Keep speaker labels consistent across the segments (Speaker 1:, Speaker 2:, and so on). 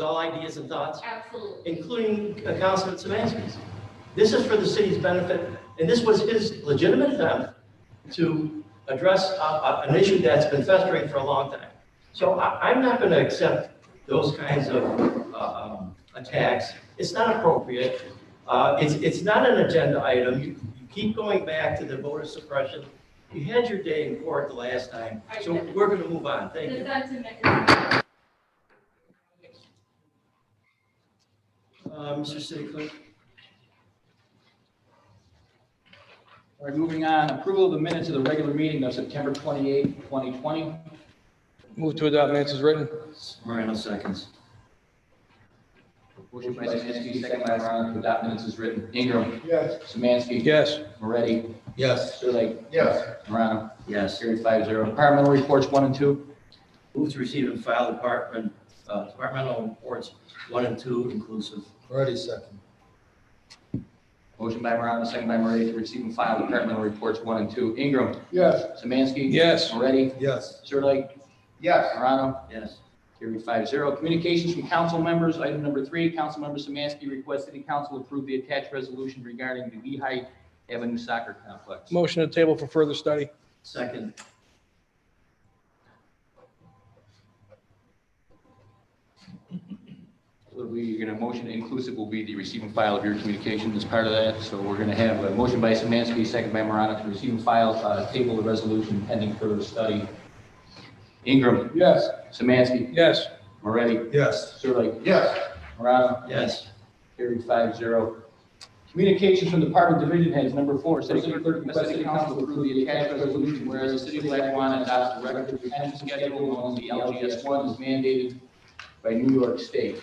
Speaker 1: all ideas and thoughts,
Speaker 2: Absolutely.
Speaker 1: including uh, Councilman Semansky's. This is for the city's benefit, and this was his legitimate attempt to address uh, uh, an issue that's been festering for a long time. So I, I'm not going to accept those kinds of uh, um, attacks. It's not appropriate. Uh, It's, it's not an agenda item. You you keep going back to the voter suppression. You had your day in court the last time, so we're going to move on. Thank
Speaker 2: The
Speaker 1: you.
Speaker 2: sentiment is.
Speaker 1: Uh, Mr. City Clerk?
Speaker 3: All right, moving on, approval of the minutes of the regular meeting of September 28, 2020.
Speaker 4: Move to adopt minutes is written.
Speaker 1: Moreno seconds.
Speaker 3: Motion by Semansky, second by Morano, to adopt minutes is written. Ingram.
Speaker 5: Yes.
Speaker 3: Semansky.
Speaker 4: Yes.
Speaker 3: Moretti.
Speaker 5: Yes.
Speaker 3: Sirlik.
Speaker 5: Yes.
Speaker 3: Morano.
Speaker 1: Yes.
Speaker 3: Carried five zero. Departmental reports one and two.
Speaker 1: Move to receive and file department, uh, departmental reports one and two inclusive.
Speaker 5: Already second.
Speaker 3: Motion by Morano, second by Moretti, to receive and file departmental reports one and two. Ingram.
Speaker 5: Yes.
Speaker 3: Semansky.
Speaker 4: Yes.
Speaker 3: Moretti.
Speaker 5: Yes.
Speaker 3: Sirlik.
Speaker 5: Yes.
Speaker 3: Morano.
Speaker 1: Yes.
Speaker 3: Carried five zero. Communications from council members, item number three, Councilmember Semansky requests City Council approve the attached resolution regarding the Lehigh Avenue Soccer Complex.
Speaker 4: Motion to table for further study.
Speaker 1: Second.
Speaker 3: We're going to motion inclusive will be the receive and file of your communication as part of that. So we're going to have a motion by Samansky, second by Morano to receive and file, uh, table the resolution pending further study. Ingram,
Speaker 5: Yes.
Speaker 3: Samansky,
Speaker 4: Yes.
Speaker 3: Moretti,
Speaker 5: Yes.
Speaker 3: Sirlik,
Speaker 5: Yes.
Speaker 3: Morano,
Speaker 1: Yes.
Speaker 3: carried five zero. Communications from Department Division Heads, number four, City Clerk requests City Council approve the attached resolution whereas the City of Lackawanna adopts a record retention schedule known as the LGS one is mandated by New York State.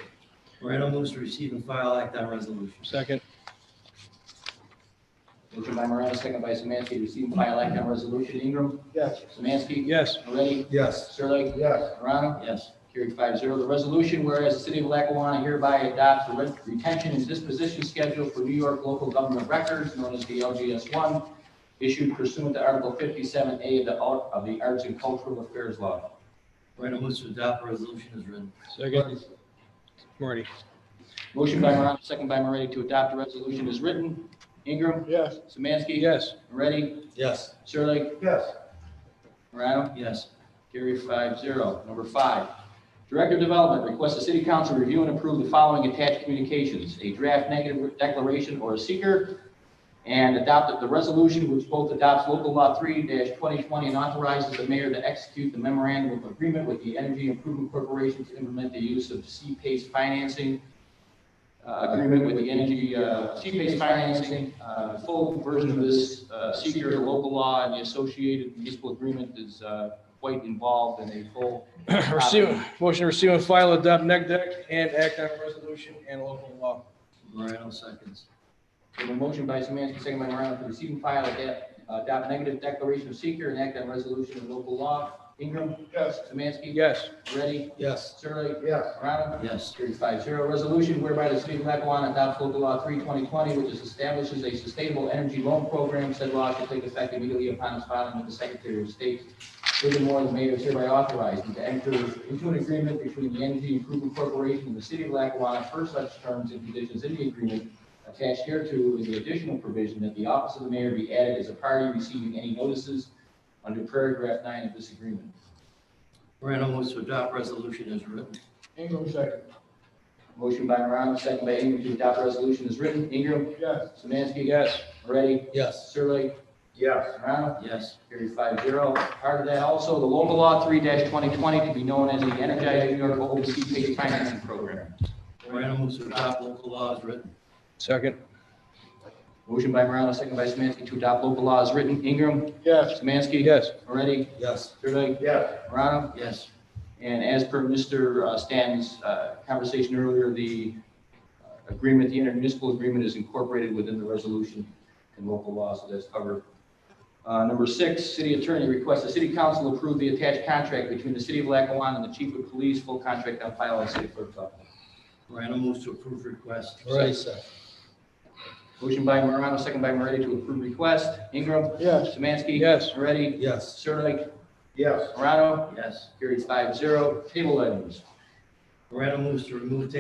Speaker 1: Moreno moves to receive and file act on resolution.
Speaker 4: Second.
Speaker 3: Motion by Morano, second by Samansky, to receive and file act on resolution. Ingram.
Speaker 5: Yes.
Speaker 3: Samansky.
Speaker 4: Yes.
Speaker 3: Moretti.
Speaker 5: Yes.
Speaker 3: Sirlik.
Speaker 5: Yes.
Speaker 3: Morano.
Speaker 1: Yes.
Speaker 3: Carried five zero. The resolution, whereas the city of Lackawanna hereby adopts the re- retention and disposition schedule for New York local government records, known as the LGS one, issued pursuant to Article fifty-seven A of the, Al- of the Arts and Cultural Affairs Law.
Speaker 1: Moreno moves to adopt resolution as written.
Speaker 4: Second. Marty.
Speaker 3: Motion by Morano, second by Moretti, to adopt the resolution as written. Ingram.
Speaker 5: Yes.
Speaker 3: Samansky.
Speaker 4: Yes.
Speaker 3: Moretti.
Speaker 5: Yes.
Speaker 3: Sirlik.
Speaker 5: Yes.
Speaker 3: Morano.
Speaker 1: Yes.
Speaker 3: Carried five zero. Number five, Director of Development requests the city council review and approve the following attached communications, a draft negative declaration or a seeker, and adopt the resolution which both adopts local law three twenty twenty and authorizes the mayor to execute the memorandum of agreement with the Energy Improvement Corporation to implement the use of C-PACE financing, uh, agreement with the energy, uh, C-PACE financing, uh, full version of this, uh, seeker local law and the associated municipal agreement is, uh, quite involved in a full.
Speaker 4: Receive, motion to receive and file adopt neg deck and act on resolution and local law.
Speaker 1: Moreno seconds.
Speaker 3: We have a motion by Samansky, second by Morano, to receive and file adapt, adopt negative declaration of seeker and act on resolution of local law. Ingram,
Speaker 5: Yes.
Speaker 3: Samansky.
Speaker 4: Yes.
Speaker 3: Moretti,
Speaker 5: Yes.
Speaker 3: Sirlik,
Speaker 5: Yes.
Speaker 3: Morano.
Speaker 1: Yes.
Speaker 3: Carried five zero. Resolution whereby the city of Lackawanna adopts local law three twenty twenty, which is establishes a sustainable energy loan program. Said law shall take effect immediately upon its filing with the Secretary of State. Furthermore, the mayor is hereby authorized to enter into an agreement between the Energy Improvement Corporation and the city of Lackawanna for such terms and conditions in the agreement attached hereto is the additional provision that the office of the mayor be added as a party receiving any notices under paragraph nine of this agreement.
Speaker 1: Moreno moves to adopt resolution as written.
Speaker 5: Ingram second.
Speaker 3: Motion by Morano, second by Ingram to adopt resolution is written. Ingram.
Speaker 5: Yes.
Speaker 3: Samansky.
Speaker 4: Yes.
Speaker 3: Moretti.
Speaker 5: Yes.
Speaker 3: Sirlik.
Speaker 5: Yes.
Speaker 3: Morano.
Speaker 1: Yes.
Speaker 3: Carried five zero. Part of that also, the local law three twenty twenty to be known as the Energize New York Open Sea Pay Financing Program.
Speaker 1: Moreno moves to adopt local law as written.
Speaker 4: Second.
Speaker 3: Motion by Morano, second by Samansky to adopt local law is written. Ingram.
Speaker 5: Yes.
Speaker 3: Samansky.
Speaker 4: Yes.
Speaker 3: Moretti.
Speaker 5: Yes.
Speaker 3: Sirlik.
Speaker 5: Yes.
Speaker 3: Morano.
Speaker 1: Yes.
Speaker 3: And as per Mr. uh, Stanton's uh, conversation earlier, the uh, agreement, the intermunicipal agreement is incorporated within the resolution and local law, so that's covered. Uh, Number six, city attorney requests the city council approve the attached contract between the city of Lackawanna and the chief of police, full contract on file in city clerk's office.
Speaker 1: Moreno moves to approve request.
Speaker 5: Already second.
Speaker 3: Motion by Morano, second by Moretti to approve request. Ingram.
Speaker 5: Yes.
Speaker 3: Samansky.
Speaker 4: Yes.
Speaker 3: Moretti.
Speaker 5: Yes.
Speaker 3: Sirdike.
Speaker 5: Yes.
Speaker 3: Morano.
Speaker 1: Yes.
Speaker 3: Carried five zero. Table items.
Speaker 1: Morano moves to remove table